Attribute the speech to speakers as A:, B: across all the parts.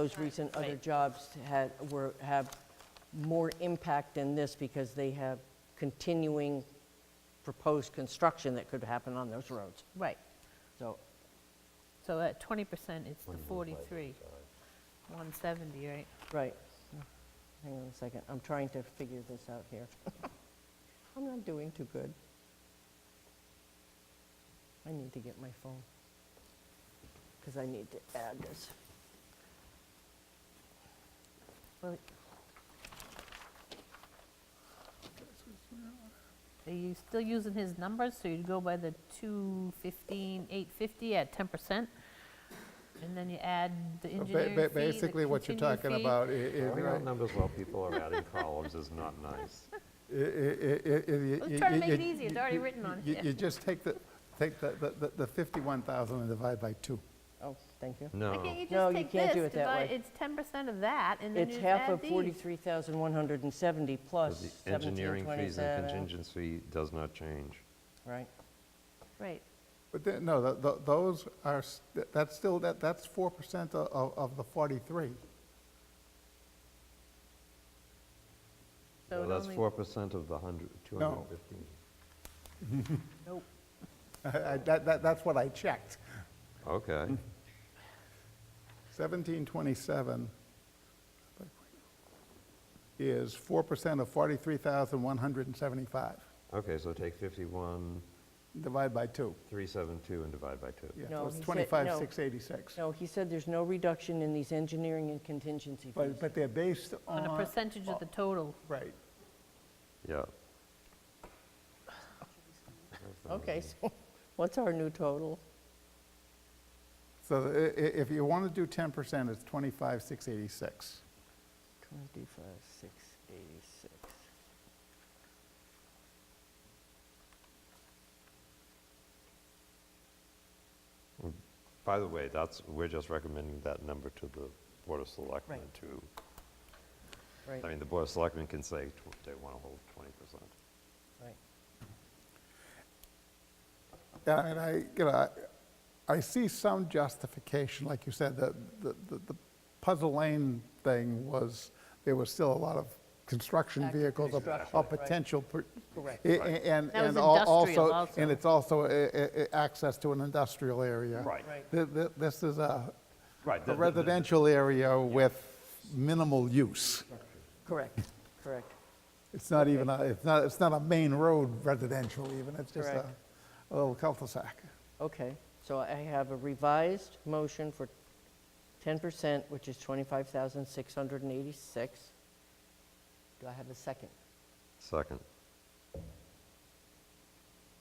A: Those recent other
B: Right.
A: jobs had, were, have more impact than this because they have continuing proposed construction that could happen on those roads.
B: Right,
A: So
B: so at twenty percent, it's the forty-three, one seventy, right?
A: Right. Hang on a second, I'm trying to figure this out here. I'm not doing too good. I need to get my phone, because I need to add this.
B: Well, Are you still using his numbers, so you'd go by the two fifteen, eight fifty at ten percent? And then you add the
C: Ba-
B: engineering
C: ba-
B: fee, the
C: Basically, what you're
B: continuing
C: talking
B: fee.
C: about i- is,
D: Throwing out
C: right,
D: numbers while people are adding columns is not nice.
C: i- i- i- i- you-
B: I was
C: you-
B: trying to
C: you-
B: make it easy. It's
C: you-
B: already
C: you-
B: written on
C: you-
B: here.
C: You just take the, take the- the the- the 51,000 and divide by two.
A: Oh, thank you.
B: Why
D: No.
B: can't you
A: No,
B: just
A: you
B: take
A: can't do
B: this,
A: it that way.
B: divide, it's ten percent of that, and then you
A: It's
B: just
A: half
B: add
A: of
B: these.
A: 43,170
D: but
A: plus
D: The engineering fees
A: 1727.
D: and contingency does not change.
A: Right,
B: Right,
C: But then, no, th- th- those are, s- th- that's still, that that's 4% o- of of the 43.
B: so
D: Well,
B: it
D: That's
B: only-
D: 4% of the 100, 250.
B: Nope.
C: I- I- that- that- That's what I checked.
D: Okay.
C: 1727 is 4% of 43,175.
D: Okay, so take 51,
C: Divide by two.
D: 372 and divide by 2.
C: Yeah,
A: No,
C: so it's
A: he said- no.
C: 25,686.
A: no, he said there's no reduction in these engineering and contingency fees.
C: But, but they're based on.
B: On a percentage of the total.
C: Right.
D: Yeah.
A: Okay, so what's our new total?
C: So i- i- if you want to do 10%, it's 25,686.
A: 25, 686.
D: By the way, that's, we're just recommending that number to the Board of Selectmen
A: Right.
D: to,
A: Right,
D: I mean, the Board of Selectmen can say tw- they want to hold 20%.
A: right.
C: Yeah, I mean, I, you know, I, I see some justification, like you said, the, the, the- the Puzzle Lane thing was, there was still a lot of construction
A: Active
C: vehicles, or-
A: construction,
C: or
A: right.
C: potential. per-
A: Correct.
C: i- i- And,
B: That was
C: and al-
B: industrial
C: also,
B: also.
C: and it's also a- a- a- access to an industrial area.
D: Right.
A: Right.
C: Th- th- This is a
D: Right.
C: a
D: the- the- the-
C: residential area with minimal use.
A: Correct, correct.
C: It's not even, a- it's not, it's not a main road residential even, it's just a
A: Correct.
C: a little cul-de-sac.
A: Okay, so I have a revised motion for 10%, which is 25,686. Do I have a second?
D: Second.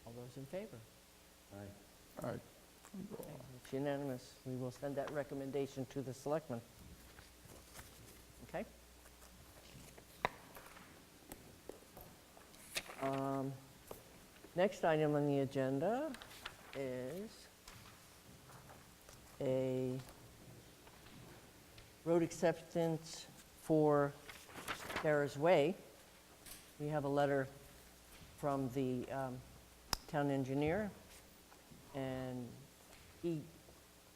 A: All those in favor?
C: All right.
A: It's unanimous. We will send that recommendation to the selectmen. Okay? Um, Next item on the agenda is a road acceptance for Sarah's Way. We have a letter from the um, town engineer, and he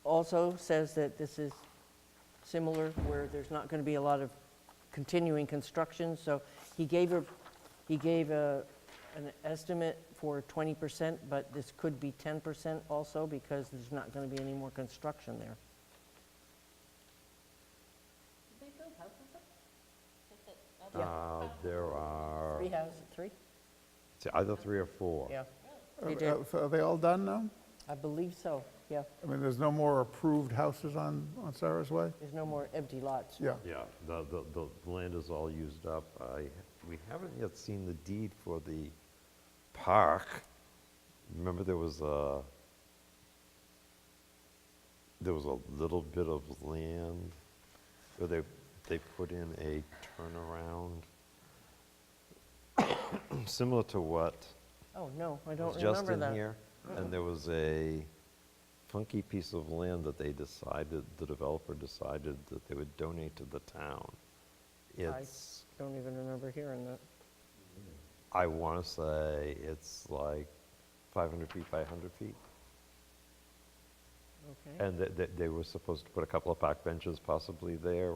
A: also says that this is similar, where there's not going to be a lot of continuing construction, so he gave a, he gave a, an estimate for 20%, but this could be 10% also, because there's not going to be any more construction there.
D: Uh, There are,
A: oh, Three houses, three?
D: it's either three or four.
A: Yeah, They did.
C: Are uh, so are they all done now?
A: I believe so, yeah.
C: I mean, there's no more approved houses on, on Sarah's Way?
A: There's no more empty lots.
C: Yeah.
D: Yeah, the, the, the land is all used up. I, we haven't yet seen the deed for the park. Remember there was a, there was a little bit of land where they, they put in a turnaround? Similar to what
A: Oh, no, I don't
D: was
A: remember that.
D: just in here, and there was a funky piece of land that they decided, the developer decided that they would donate to the town. It's,
A: Don't even remember hearing that.
D: I want to say, it's like 500 feet by 100 feet.
A: okay.
D: And that, that they were supposed to put a couple of park benches possibly there